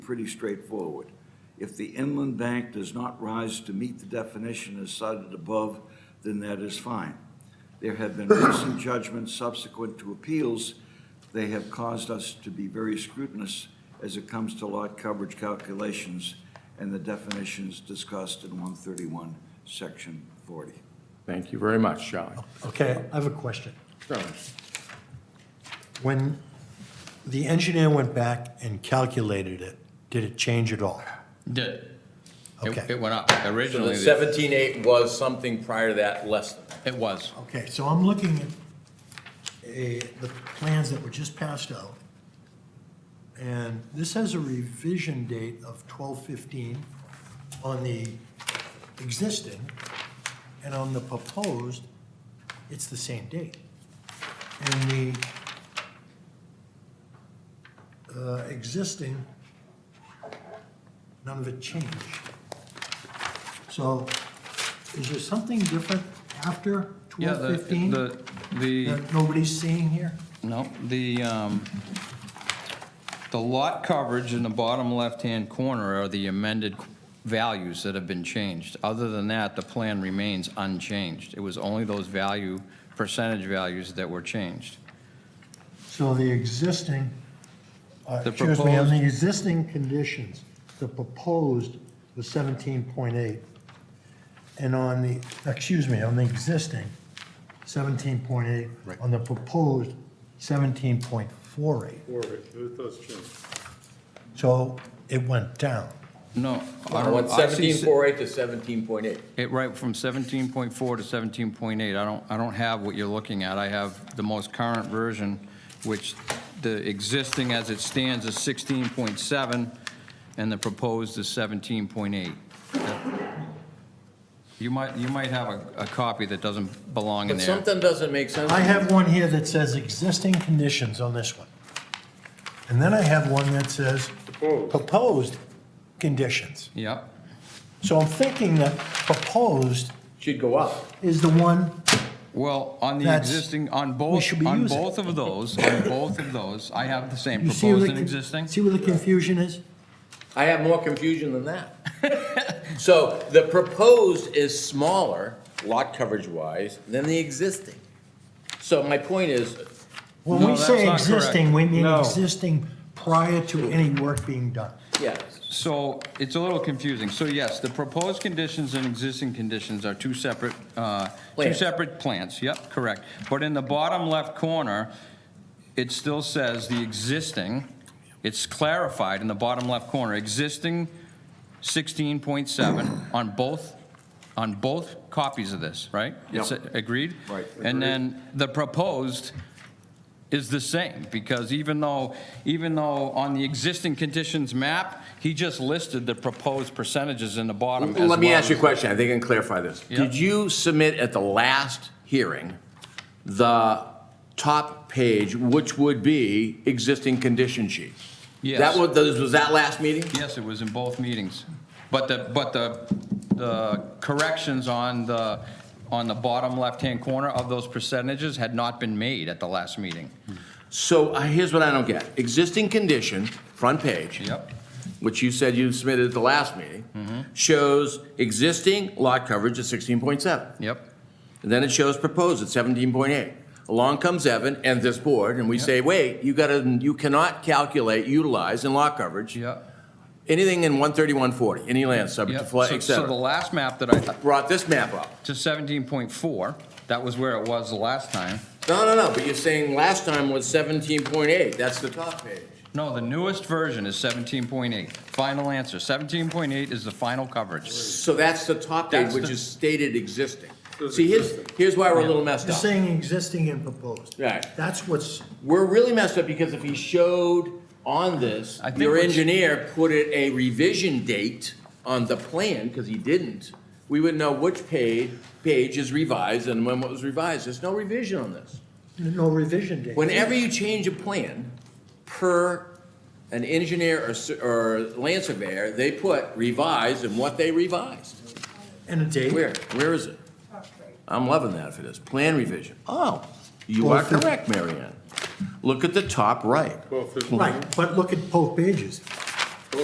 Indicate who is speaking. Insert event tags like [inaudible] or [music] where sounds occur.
Speaker 1: pretty straightforward. If the inland bank does not rise to meet the definition as cited above, then that is fine. There have been recent judgments subsequent to appeals. They have caused us to be very scrutinous as it comes to lot coverage calculations and the definitions discussed in 131, Section 40.
Speaker 2: Thank you very much, Charlie.
Speaker 3: Okay, I have a question.
Speaker 2: Charlie,
Speaker 3: When the engineer went back and calculated it, did it change at all?
Speaker 4: Did.
Speaker 3: Okay.
Speaker 4: It it went up.
Speaker 5: So the
Speaker 4: Originally, the-
Speaker 5: seventeen eight was something prior to that, less than.
Speaker 4: it was.
Speaker 3: Okay, so I'm looking at a, the plans that were just passed out. And this has a revision date of twelve fifteen on the existing, and on the proposed, it's the same date. And the uh, existing, none of it changed. So is there something different after
Speaker 4: Yeah,
Speaker 3: twelve
Speaker 4: the,
Speaker 3: fifteen?
Speaker 4: the, the,
Speaker 3: that nobody's seeing here?
Speaker 4: no, the, um, the lot coverage in the bottom left-hand corner are the amended values that have been changed. Other than that, the plan remains unchanged. It was only those value, percentage values that were changed.
Speaker 3: So the existing, uh,
Speaker 4: The
Speaker 3: excuse me, on
Speaker 4: proposed-
Speaker 3: the existing conditions, the proposed was seventeen point eight. And on the, excuse me, on the existing, seventeen point eight. On the proposed, seventeen point four eight.
Speaker 6: Or it does change.
Speaker 3: So it went down.
Speaker 4: No. I
Speaker 5: I
Speaker 4: don't- I
Speaker 5: went
Speaker 4: see-
Speaker 5: seventeen four eight to seventeen point eight.
Speaker 4: It, right, from 17.4 to 17.8, I don't, I don't have what you're looking at. I have the most current version, which the existing as it stands is 16.7, and the proposed is 17.8. You might, you might have a, a copy that doesn't belong in
Speaker 5: But
Speaker 4: there.
Speaker 5: something doesn't make sense.
Speaker 3: I have one here that says existing conditions on this one. And then I have one that says
Speaker 6: Proposed.
Speaker 3: proposed conditions.
Speaker 4: Yep,
Speaker 3: So I'm thinking that proposed
Speaker 5: Should go up.
Speaker 3: is the one,
Speaker 4: well, on the
Speaker 3: That's-
Speaker 4: existing, on
Speaker 3: we
Speaker 4: both,
Speaker 3: should be
Speaker 4: on
Speaker 3: using.
Speaker 4: both of those, on both of those, I have the same
Speaker 3: you see where
Speaker 4: proposed
Speaker 3: the,
Speaker 4: and existing.
Speaker 3: see where the confusion is?
Speaker 5: I have more confusion than that.
Speaker 4: [laughs]
Speaker 5: So the proposed is smaller, lot coverage wise, than the existing. So my point is,
Speaker 3: When
Speaker 4: No,
Speaker 3: we
Speaker 4: that's
Speaker 3: say
Speaker 4: not correct.
Speaker 3: existing, we mean
Speaker 6: No.
Speaker 3: existing prior to any work being done.
Speaker 5: yes,
Speaker 4: So it's a little confusing. So yes, the proposed conditions and existing conditions are two separate, uh, two
Speaker 5: Plans.
Speaker 4: separate plans. Yep, correct. But in the bottom left corner, it still says the existing, it's clarified in the bottom left corner, existing 16.7 on both, on both copies of this, right? It's
Speaker 1: Yep.
Speaker 4: Agreed?
Speaker 1: Right.
Speaker 4: And then the proposed is the same, because even though, even though on the existing conditions map, he just listed the proposed percentages in the bottom as well.
Speaker 5: let me ask you a
Speaker 4: as-
Speaker 5: question, I think I can clarify this.
Speaker 4: Yeah.
Speaker 5: Did you submit at the last hearing the top page, which would be existing condition sheet?
Speaker 4: Yes.
Speaker 5: That was, was that last meeting?
Speaker 4: Yes, it was in both meetings. But the, but the, the corrections on the, on the bottom left-hand corner of those percentages had not been made at the last meeting.
Speaker 5: So uh, here's what I don't get. Existing condition, front page.
Speaker 4: Yep.
Speaker 5: Which you said you submitted at the last meeting.
Speaker 4: Mm-hmm.
Speaker 5: Shows existing lot coverage at sixteen point seven.
Speaker 4: Yep,
Speaker 5: And then it shows proposed at seventeen point eight. Along comes Evan and this board, and we say, wait, you gotta, you cannot calculate, utilize in lot coverage.
Speaker 4: yep.
Speaker 5: Anything in one thirty-one forty, any land subject to
Speaker 4: Yep.
Speaker 5: flood,
Speaker 4: So-
Speaker 5: et
Speaker 4: So the
Speaker 5: cetera.
Speaker 4: last map that I,
Speaker 5: Brought this map up.
Speaker 4: to 17.4, that was where it was the last time.
Speaker 5: No, no, no, but you're saying last time was seventeen point eight. That's the top page.
Speaker 4: No, the newest version is 17.8. Final answer, 17.8 is the final coverage.
Speaker 5: So that's the top page,
Speaker 4: That's
Speaker 5: which
Speaker 4: the-
Speaker 5: is stated existing.
Speaker 6: Those
Speaker 5: See, here's,
Speaker 6: existing.
Speaker 5: here's why we're a little messed
Speaker 3: You're
Speaker 5: up.
Speaker 3: saying existing and proposed.
Speaker 5: Right.
Speaker 3: That's what's,
Speaker 5: We're really messed up because if he showed on this,
Speaker 4: I think
Speaker 5: your
Speaker 4: what's-
Speaker 5: engineer put it a revision date on the plan, because he didn't, we would know which page, page is revised and when what was revised. There's no revision on this.
Speaker 3: no revision date.
Speaker 5: Whenever you change a plan, per an engineer or, s- or land surveyor, they put revised and what they revised.
Speaker 3: And a date.
Speaker 5: Where, where is it? I'm loving that for this, plan revision. Oh, you
Speaker 3: Well,
Speaker 5: are
Speaker 3: for-
Speaker 5: correct, Marianne. Look at the top right.
Speaker 6: Twelve fifteen.
Speaker 3: Right, but look at both pages.